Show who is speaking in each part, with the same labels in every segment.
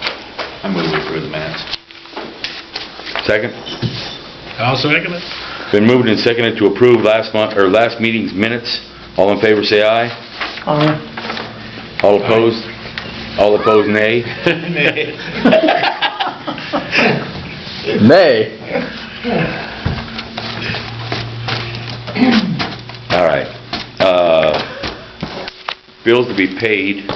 Speaker 1: I move we approve the minutes. Second?
Speaker 2: I'll second it.
Speaker 1: Been moved and seconded to approve last month, or last meeting's minutes. All in favor, say aye. All opposed? All opposed, nay.
Speaker 3: Nay.
Speaker 1: All right. Uh, Bills to be paid.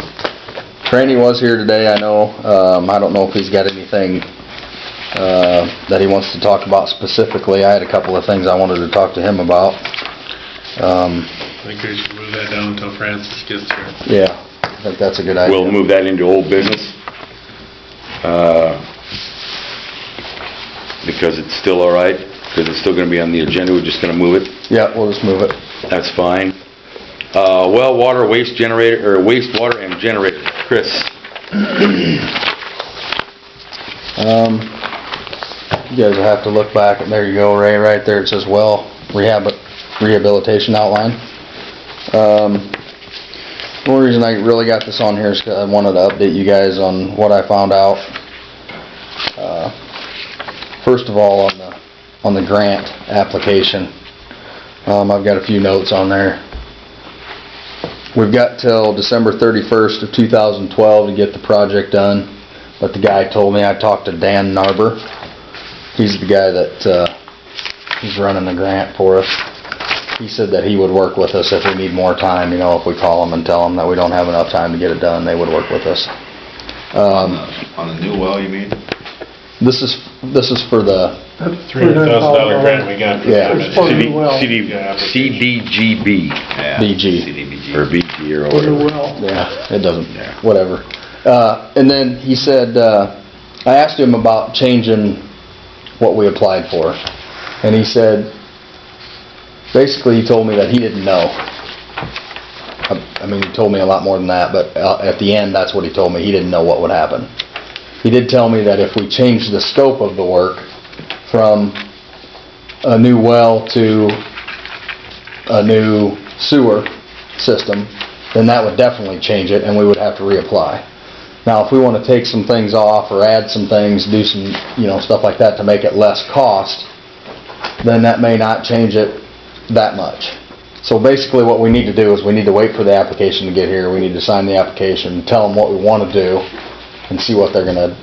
Speaker 3: Randy was here today, I know. Um, I don't know if he's got anything, uh, that he wants to talk about specifically. I had a couple of things I wanted to talk to him about. Um,
Speaker 2: I think we should move that down until Francis gets here.
Speaker 3: yeah, I think that's a good idea.
Speaker 1: We'll move that into old business. Uh, Because it's still all right, because it's still going to be on the agenda, we're just going to move it.
Speaker 3: Yeah, we'll just move it.
Speaker 1: That's fine. Uh, Well, water, waste generator, or wastewater and generator. Chris?
Speaker 3: Um, you guys will have to look back, and there you go, Ray, right there, it says well rehab, rehabilitation outline. Um, the only reason I really got this on here is 'cause I wanted to update you guys on what I found out. Uh, First of all, on the, on the grant application, um, I've got a few notes on there. We've got till December thirty-first of two thousand twelve to get the project done. But the guy told me, I talked to Dan Narber. He's the guy that, uh, he's running the grant for us. He said that he would work with us if we need more time, you know, if we call him and tell him that we don't have enough time to get it done, they would work with us. Um,
Speaker 4: On the new well, you mean?
Speaker 3: this is, this is for the,
Speaker 2: Three hundred thousand dollar grant we got. for
Speaker 3: Yeah.
Speaker 2: that.
Speaker 5: For the
Speaker 1: CD
Speaker 5: well.
Speaker 1: CD
Speaker 2: Yeah.
Speaker 1: CDGB,
Speaker 3: BG.
Speaker 4: CDBG.
Speaker 1: or BG, or
Speaker 5: For the
Speaker 1: whatever.
Speaker 5: well.
Speaker 3: yeah, it doesn't,
Speaker 1: Yeah.
Speaker 3: whatever. Uh, and then he said, uh, I asked him about changing what we applied for. And he said, basically he told me that he didn't know. I I mean, he told me a lot more than that, but uh, at the end, that's what he told me. He didn't know what would happen. He did tell me that if we changed the scope of the work from a new well to a new sewer system, then that would definitely change it and we would have to reapply. Now, if we want to take some things off or add some things, do some, you know, stuff like that to make it less cost, then that may not change it that much. So basically, what we need to do is we need to wait for the application to get here, we need to sign the application, tell them what we want to do, and see what they're gonna,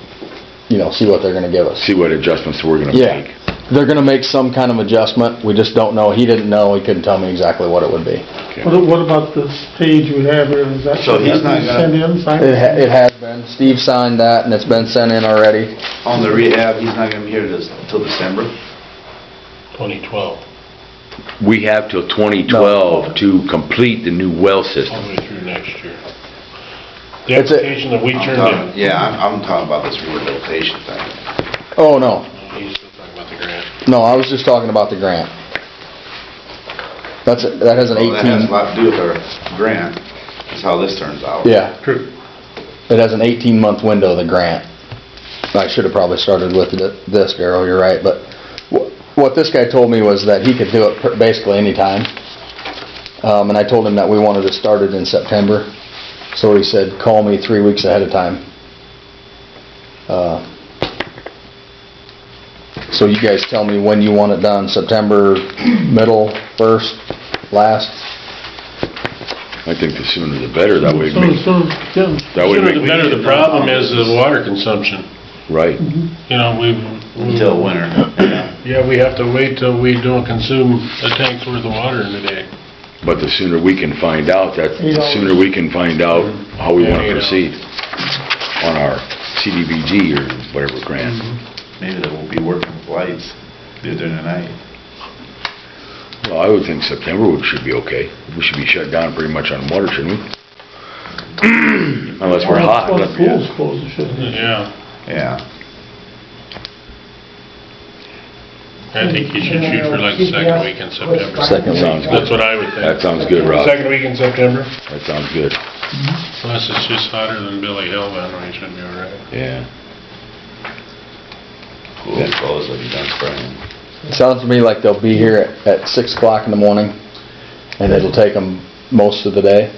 Speaker 3: you know, see what they're gonna give us.
Speaker 1: See what adjustments we're gonna
Speaker 3: Yeah,
Speaker 1: make.
Speaker 3: they're gonna make some kind of adjustment, we just don't know, he didn't know, he couldn't tell me exactly what it would be.
Speaker 5: What what about the page you have here, is that?
Speaker 4: So he's not gonna-
Speaker 5: Send in, sign?
Speaker 3: It ha- it has been, Steve signed that, and it's been sent in already.
Speaker 4: On the rehab, he's not gonna be here this- till December.
Speaker 2: Twenty twelve,
Speaker 1: We have till 2012 to complete the new well
Speaker 2: all the
Speaker 1: system.
Speaker 2: way through next year. The
Speaker 3: It's a-
Speaker 2: application that we
Speaker 4: I'm
Speaker 2: turned
Speaker 4: talking-
Speaker 2: in.
Speaker 4: Yeah, I'm, I'm talking about this rehabilitation thing.
Speaker 3: Oh, no,
Speaker 2: He's still talking about the grant.
Speaker 3: no, I was just talking about the grant. That's, that has an
Speaker 4: Well, Oh, That has a
Speaker 3: eighteen,
Speaker 4: lot to do with our grant, is how this turns out.
Speaker 3: yeah,
Speaker 2: True.
Speaker 3: it has an eighteen-month window, the grant. I should've probably started with th- this, Darryl, you're right, but wh- what this guy told me was that he could do it pr- basically anytime. Um, and I told him that we wanted to start it in September, so he said, call me three weeks ahead of time. Uh, So you guys tell me when you want it done, September, middle, first, last?
Speaker 1: I think the sooner the better, that way, it
Speaker 5: So,
Speaker 1: makes-
Speaker 5: so, yeah.
Speaker 1: that way,
Speaker 2: Sooner
Speaker 1: it
Speaker 2: the
Speaker 1: makes-
Speaker 2: better, the problem is the water consumption.
Speaker 1: right.
Speaker 2: You know, we've.
Speaker 4: Until winter.
Speaker 2: Yeah, we have to wait till we don't consume a tank's worth of water in a day.
Speaker 1: But the sooner we can find out, that,
Speaker 5: Eight
Speaker 1: the
Speaker 5: hours.
Speaker 1: sooner we can find out how we
Speaker 2: Yeah,
Speaker 1: wanna
Speaker 2: eight hours.
Speaker 1: proceed on our CDBG or whatever grant.
Speaker 4: Maybe they won't be working with lights during the night.
Speaker 1: Well, I would think September would- should be okay. We should be shut down pretty much on water, shouldn't we? Unless we're hot.
Speaker 5: Well,
Speaker 1: but-
Speaker 5: school's closed, shouldn't it?
Speaker 2: Yeah,
Speaker 4: Yeah.
Speaker 2: I think you should shoot for like the second week in September.
Speaker 3: Second
Speaker 1: Sounds good.
Speaker 2: That's what I would think.
Speaker 1: That sounds good, Rob.
Speaker 2: Second week in September?
Speaker 1: That sounds good.
Speaker 2: Unless it's just hotter than Billy Hill, then we should be all right.
Speaker 1: Yeah.
Speaker 4: Cool, close, it'll be done spraying.
Speaker 3: It Sounds to me like they'll be here at at six o'clock in the morning, and it'll take them most of the day.